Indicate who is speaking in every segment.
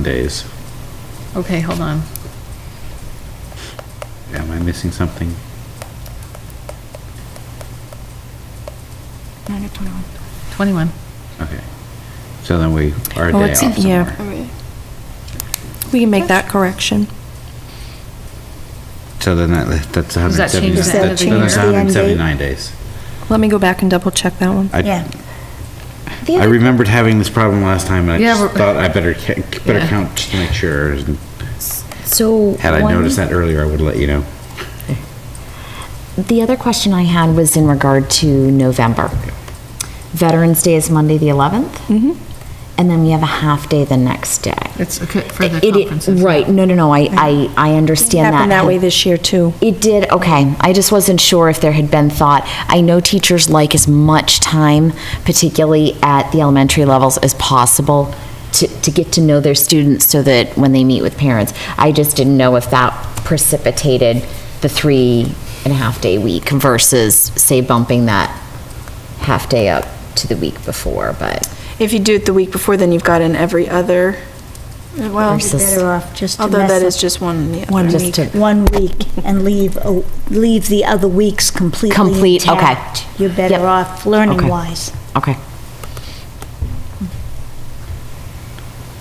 Speaker 1: Mondays.
Speaker 2: Okay, hold on.
Speaker 1: Am I missing something?
Speaker 3: I get 21.
Speaker 2: 21.
Speaker 1: Okay. So then we are a
Speaker 3: Oh,
Speaker 1: day off
Speaker 3: it's in here.
Speaker 1: somewhere.
Speaker 3: We can make that correction.
Speaker 1: So then that, that's
Speaker 2: Does that change
Speaker 1: 179. that's- then
Speaker 2: the end of the
Speaker 1: that's
Speaker 2: year?
Speaker 4: Does that change the
Speaker 1: 179
Speaker 4: end date?
Speaker 1: days.
Speaker 3: Let me go back and double check that one.
Speaker 1: I-
Speaker 4: Yeah. The
Speaker 1: I
Speaker 4: other-
Speaker 1: remembered having this problem last time, and I
Speaker 2: Yeah,
Speaker 1: just
Speaker 2: but-
Speaker 1: thought I better, ca- better
Speaker 2: Yeah.
Speaker 1: count just to make sure. and
Speaker 4: So.
Speaker 1: Had I
Speaker 4: one-
Speaker 1: noticed that earlier, I would let you know.
Speaker 4: The other question I had was in regard to November. Veterans Day is Monday, the 11th. Mm-hmm. And then we have a half day the next day.
Speaker 2: It's okay for the
Speaker 4: It- it-
Speaker 2: conferences.
Speaker 4: Right, no, no, no, I, I, I understand that.
Speaker 3: Happened that way this year, too.
Speaker 4: It did, okay. I just wasn't sure if there had been thought. I know teachers like as much time, particularly at the elementary levels, as possible to, to get to know their students so that when they meet with parents. I just didn't know if that precipitated the three and a half day week versus, say, bumping that half day up to the week before, but.
Speaker 5: If you do it the week before, then you've got in every other, well,
Speaker 4: Versus-
Speaker 5: although
Speaker 4: Better
Speaker 5: that
Speaker 4: off
Speaker 5: is
Speaker 4: just
Speaker 5: just one and the other.
Speaker 4: Just to- One
Speaker 6: one week and leave, oh, leave the other weeks completely
Speaker 4: Complete, okay.
Speaker 6: intact. You're
Speaker 4: Yep.
Speaker 6: better off learning
Speaker 4: Okay.
Speaker 6: wise.
Speaker 4: Okay.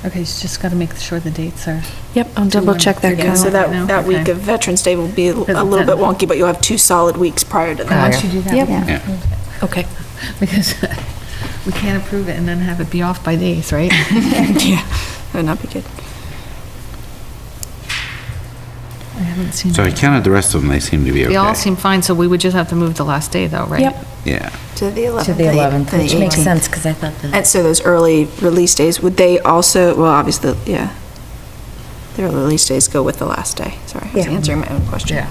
Speaker 2: Okay, she's just got to make sure the dates are.
Speaker 3: Yep, I'll double check that,
Speaker 5: Yeah,
Speaker 2: Got
Speaker 5: so
Speaker 2: it
Speaker 3: Kyle.
Speaker 2: right now?
Speaker 5: that, that week
Speaker 2: Okay.
Speaker 5: of Veterans Day will be a
Speaker 2: Because
Speaker 5: a
Speaker 2: it's
Speaker 5: little
Speaker 2: in-
Speaker 5: bit wonky, but you'll have two solid weeks prior to that.
Speaker 2: Once you do that.
Speaker 3: Yep.
Speaker 2: we can-
Speaker 1: Yeah.
Speaker 3: Okay.
Speaker 2: Because we can't approve it and then have it be off by days, right?
Speaker 5: Yeah, that would not be good.
Speaker 2: I haven't seen.
Speaker 1: So I
Speaker 2: it.
Speaker 1: counted the rest of them, they seem to be okay.
Speaker 2: They all seem fine, so we would just have to move the last day though, right?
Speaker 3: Yep.
Speaker 1: Yeah.
Speaker 5: To the 11th.
Speaker 4: To the 11th, which makes
Speaker 5: 18th.
Speaker 4: sense, because I thought the.
Speaker 5: And so those early release days, would they also, well, obviously, yeah. The early release days go with the last day. Sorry, I was
Speaker 6: Yeah.
Speaker 5: answering my own question.
Speaker 2: Yeah.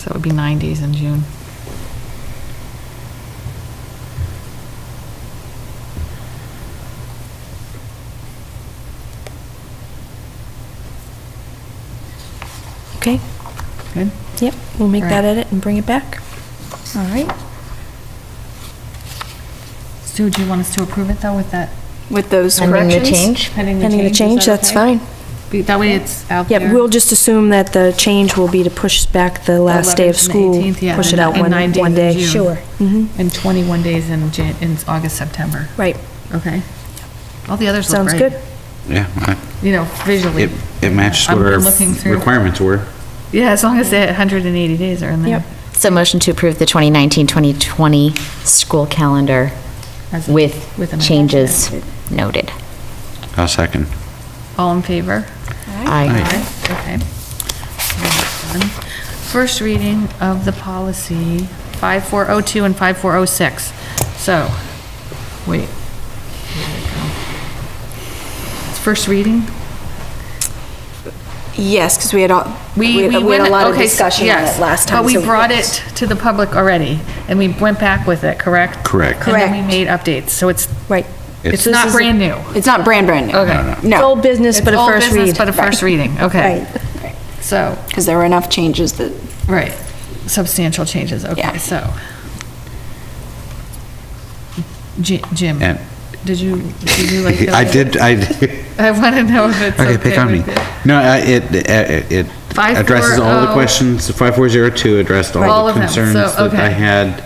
Speaker 2: So it would be nine days in June.
Speaker 3: Okay,
Speaker 2: Good?
Speaker 3: yep, we'll make
Speaker 2: Right.
Speaker 3: that edit and bring it back.
Speaker 6: All right.
Speaker 2: Sue, do you want us to approve it though with that?
Speaker 5: With those
Speaker 4: Pending the
Speaker 5: corrections?
Speaker 4: change?
Speaker 3: Pending the
Speaker 2: is
Speaker 3: change,
Speaker 2: that
Speaker 3: that's
Speaker 2: okay?
Speaker 3: fine.
Speaker 2: Be- That way it's out there.
Speaker 3: Yep, we'll just assume that the change will be to push back the last day of
Speaker 2: 11th and
Speaker 3: school.
Speaker 2: 18th, yeah,
Speaker 3: Push it
Speaker 2: and-
Speaker 3: out
Speaker 2: and
Speaker 3: one,
Speaker 2: nine days
Speaker 3: one
Speaker 2: in
Speaker 3: day. Mm-hmm.
Speaker 2: June.
Speaker 6: Sure.
Speaker 2: And 21 days in Jan, in August, September.
Speaker 3: Right,
Speaker 2: Okay. All the others look
Speaker 3: sounds
Speaker 2: great.
Speaker 3: good.
Speaker 1: Yeah, I-
Speaker 2: You know, visually.
Speaker 1: it, it matched
Speaker 2: I'm-
Speaker 1: what our
Speaker 2: I'm looking through.
Speaker 1: requirements were.
Speaker 2: Yeah, as long as the 180 days are in there.
Speaker 3: Yep.
Speaker 4: So motion to approve the 2019-2020 school calendar
Speaker 2: As- with
Speaker 4: with
Speaker 2: an
Speaker 4: changes noted.
Speaker 1: I'll second.
Speaker 2: All in favor?
Speaker 4: Aye.
Speaker 2: Okay. Done. First reading of the policy 5402 and 5406. So, wait. Here we go. It's First reading?
Speaker 5: Yes, because we had all, we had we had a
Speaker 2: went-
Speaker 5: lot of
Speaker 2: okay, so-
Speaker 5: discussion on
Speaker 2: yes,
Speaker 5: it last time.
Speaker 2: But we
Speaker 5: so-
Speaker 2: brought it to the public already, and we went back with it, correct?
Speaker 1: Correct.
Speaker 2: And then we made updates, so it's,
Speaker 3: Right.
Speaker 2: it's
Speaker 1: It's-
Speaker 2: not brand new.
Speaker 5: It's not brand, brand new.
Speaker 2: Okay.
Speaker 3: It's
Speaker 5: No,
Speaker 3: old business,
Speaker 2: It's
Speaker 3: but a
Speaker 2: old
Speaker 3: first
Speaker 2: business,
Speaker 3: read.
Speaker 2: But a first reading, okay.
Speaker 6: Right.
Speaker 2: So,
Speaker 5: because there were enough changes that
Speaker 2: right, substantial changes, okay,
Speaker 5: Yeah.
Speaker 2: so. Ji- Jim,
Speaker 1: And-
Speaker 2: did you, did you like?
Speaker 1: I did, I,
Speaker 2: I want to know if it's okay.
Speaker 1: okay, pick on me.
Speaker 2: with it.
Speaker 1: No, I- it, it it
Speaker 2: Five,
Speaker 1: addresses
Speaker 2: four,
Speaker 1: all the
Speaker 2: oh.
Speaker 1: questions, 5402 addressed
Speaker 2: All
Speaker 1: all the
Speaker 2: of them, so,
Speaker 1: concerns that
Speaker 2: okay.
Speaker 1: I had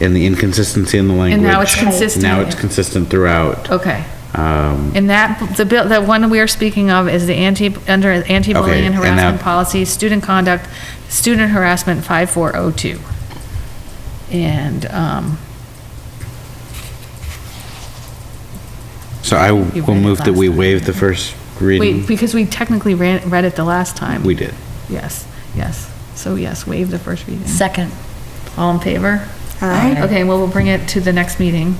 Speaker 1: and the inconsistency in the language.
Speaker 2: And now it's consistent.
Speaker 1: Now it's consistent throughout.
Speaker 2: Okay.
Speaker 1: Um,
Speaker 2: And that, the bill, the one we are speaking of is the anti, under anti-bullying
Speaker 1: Okay, and
Speaker 2: and harassment
Speaker 1: that-
Speaker 2: policy, student conduct, student harassment 5402. And, um,
Speaker 1: So I
Speaker 2: You
Speaker 1: will
Speaker 2: read it
Speaker 1: move that
Speaker 2: last
Speaker 1: we
Speaker 2: time.
Speaker 1: waive the first
Speaker 2: wait,
Speaker 1: reading.
Speaker 2: because we technically ran, read it the last time.
Speaker 1: We did.
Speaker 2: Yes, yes. So yes, waive the first reading.
Speaker 4: Second.
Speaker 2: All in favor?
Speaker 5: Aye.
Speaker 2: Okay, well, we'll bring it to the next meeting.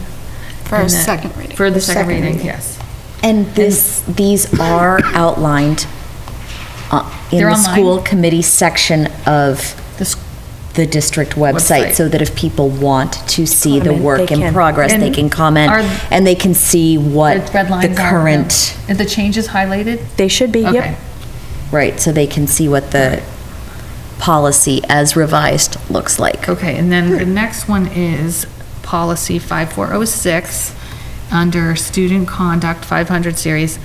Speaker 5: For a
Speaker 2: And then-
Speaker 5: second reading.
Speaker 2: For the
Speaker 5: For
Speaker 2: second reading, yes.
Speaker 4: And this, these are outlined uh, in
Speaker 2: They're
Speaker 4: the
Speaker 2: online.
Speaker 4: school committee section of
Speaker 2: This,
Speaker 4: the district
Speaker 2: Website.
Speaker 4: website, so that if people want to see the
Speaker 3: Comment,
Speaker 4: work
Speaker 3: they
Speaker 4: in
Speaker 3: can.
Speaker 4: progress, they
Speaker 2: And
Speaker 4: can comment,
Speaker 2: are-
Speaker 4: and they can see what
Speaker 2: the red
Speaker 4: the
Speaker 2: lines are.
Speaker 4: current,
Speaker 2: Are the changes highlighted?
Speaker 3: They should be,
Speaker 2: Okay.
Speaker 3: yep.
Speaker 4: right, so they can see what the policy as revised looks like.
Speaker 2: Okay, and then the next one is oh policy 5406, under student conduct 500 series.